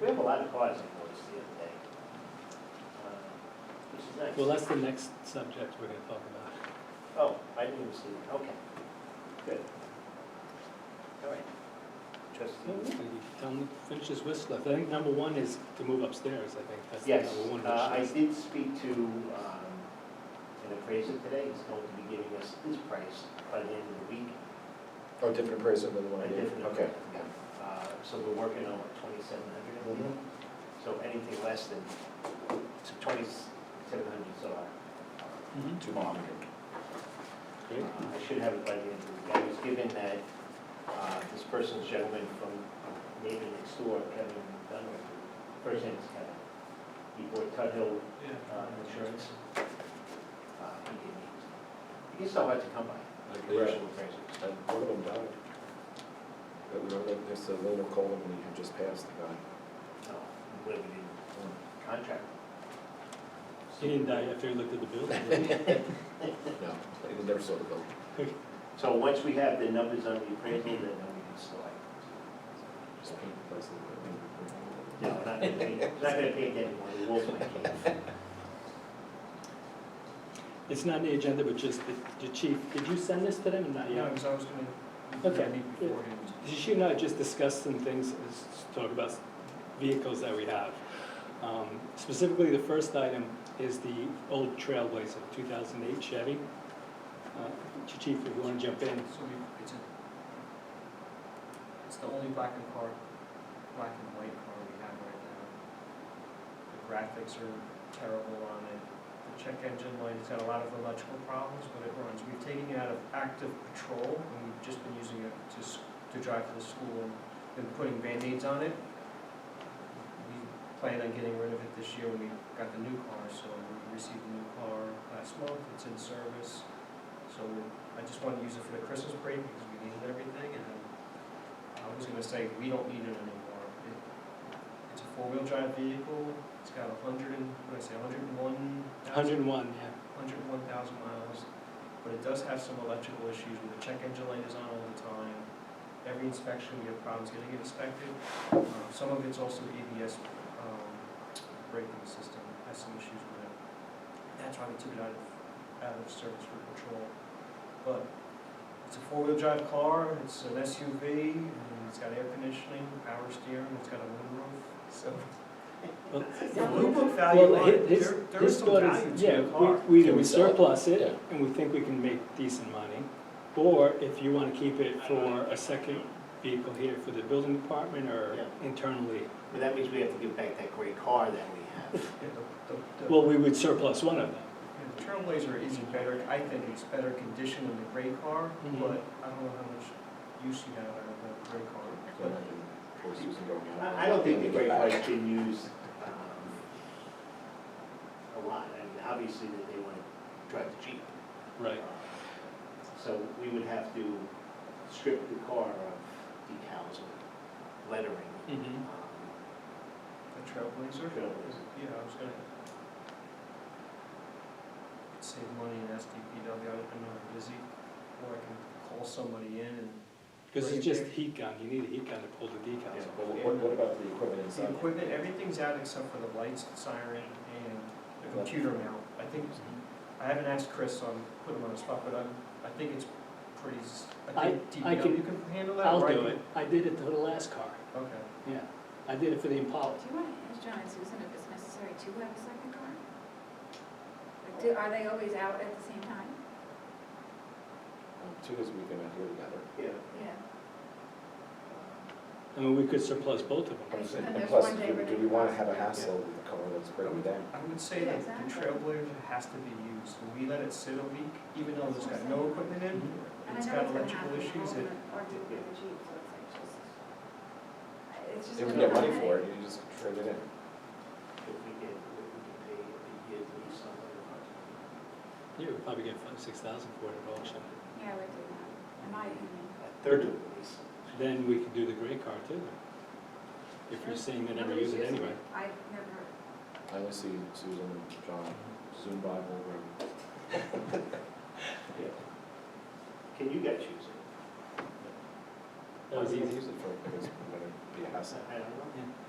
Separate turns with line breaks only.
We have a lot of cars in Woods the other day. uh, Which is nice.
Well, that's the next subject we're gonna talk about.
Oh, I didn't even see that, okay. Good. All right. Trustee?
Mm-hmm. Tell him, to finish his wish list. I think number one is to move upstairs, I think, that's the
Yes,
number one
uh, I
wish list.
did speak to um, an appraiser today, he's going to be giving us his price by the end of the week.
Oh, different appraiser than the one I
A
gave?
different
Okay.
appraiser, yeah. Uh, So we're working on what, twenty-seven hundred?
Mm-hmm.
Mhm.
So anything less than, so twenty-seven hundred is our,
Mhm.
Two hundred.
Great.
I should have it by the end of the week. I was given that, uh, this person's gentleman from Navy next door, Kevin Dunlap, first name is Kevin. He bought Tuthill uh, Insurance. Uh, He gave me, he's so hard to come by, like the
Right.
usual appraisers.
And one of them died. But remember, that there's a little column we had just passed, the guy.
No, we wouldn't even contract.
He didn't die after he looked at the bill. did he?
No, he never saw the bill.
So once we have the numbers on the appraisal, then we can select.
Just paint the place a little
No, not gonna paint, not gonna paint anymore, the wolf might cave.
It's not on the agenda, but just the, the chief, did you send this to them or not
Yeah,
yet?
because I was gonna,
Okay.
yeah, meet beforehand.
She and I just discussed some things, s- talk about vehicles that we have. Um, Specifically, the first item is the old Trailblazer, 2008 Chevy. Uh, Chief, if you want to jump in,
So we, it's a, it's the only black and car, black and white car we have right now. The graphics are terrible on it. The check engine light, it's got a lot of electrical problems, but it runs. We've taken it out of active patrol and we've just been using it to, s- to drive to the school and been putting Band-Aids on it. We plan on getting rid of it this year when we got the new car, so we received a new car last month. It's in service. So I just wanted to use it for the Christmas parade because we needed everything and I was gonna say, we don't need it anymore. It- It's a four-wheel drive vehicle, it's got a hundred and, what did I say, a hundred and one?
101, yeah.
Hundred and one thousand miles, but it does have some electrical issues where the check engine light is on all the time. Every inspection, we have problems getting it inspected. Uh, Some of it's also ABS um, braking system has some issues with it. That's why we took it out of, out of service for patrol. But it's a four-wheel drive car, it's an SUV, and it's got air conditioning, power steering, it's got a moonroof, so.
Well,
The moonroof value
Well,
on it,
his-
there, there is
his
some
thought
value
is, yeah,
to the car.
we, we
Can
we
we sell it?
surplus
Yeah.
it, and we think we can make decent money. Or if you want to keep it for a second vehicle here for the building department or
Yeah.
internally,
But that means we have to give back that gray car that we have.
Yeah, the- the- the-
well, we would surplus one of them.
Yeah, The Trailblazer is in better, I think it's better condition than the gray car,
Mhm.
but I don't know how much use you have out of the gray car.
bit.
But
Poor Susan going out.
I, I don't think the gray car's been used, um, a lot, I mean, obviously that they wanna drive the Jeep.
Right.
So we would have to strip the car of decals and lettering.
Mm-hmm.
Mhm.
um,
The Trailblazer,
Trailblazer.
yeah, I was gonna save money in SDPW, I don't know, if busy, or I can call somebody in and
Because
Right
it's just
there.
heat gun, you need a heat gun to pull the decals
Yeah.
off.
But what, what about the equipment
the
inside?
equipment, everything's out except for the lights, siren, and the computer mount. I think, I haven't asked Chris, so I'm putting him on the spot, but I'm, I think it's pretty, s- I
I-
think
I
DPW
can-
can handle that,
I'll
or I
do
can-
it, I did it to the last car,
Okay.
yeah, I did it for the Impala.
Do you want to ask John and Susan if it's necessary to have a second car? Like, do- Are they always out at the same time?
Um, Two is we can out here together.
Yeah.
Yeah.
I mean, we could surplus both of them.
And then
And
there's
plus,
one day
do
where
do
they
we wanna
cross.
have a hassle with the car that's breaking down?
I would say that the
Exactly.
Trailblazer has to be used, when we let it sit a week, even though it's got no equipment in,
And I
it's
know
got
gonna
electrical
happen,
issues, it,
Or or do it with the Jeep, so it's like just, I- it's just.
If we
gonna
get money
be a
for it,
headache.
you just trade it in.
If we get, if we could pay a year lease on it,
You would probably get five, six thousand for it at auction.
Yeah, I would do that, in my opinion.
a third of the lease.
Then we could do the gray car too, if you're saying they never use it
Nobody's using
anyway.
I never,
I only see Susan and John zoom by over. and-
Yeah. Can you guys use it?
That was
Why do
easy.
we Use it for, because we're gonna be a hassle.
I don't know.
Yeah.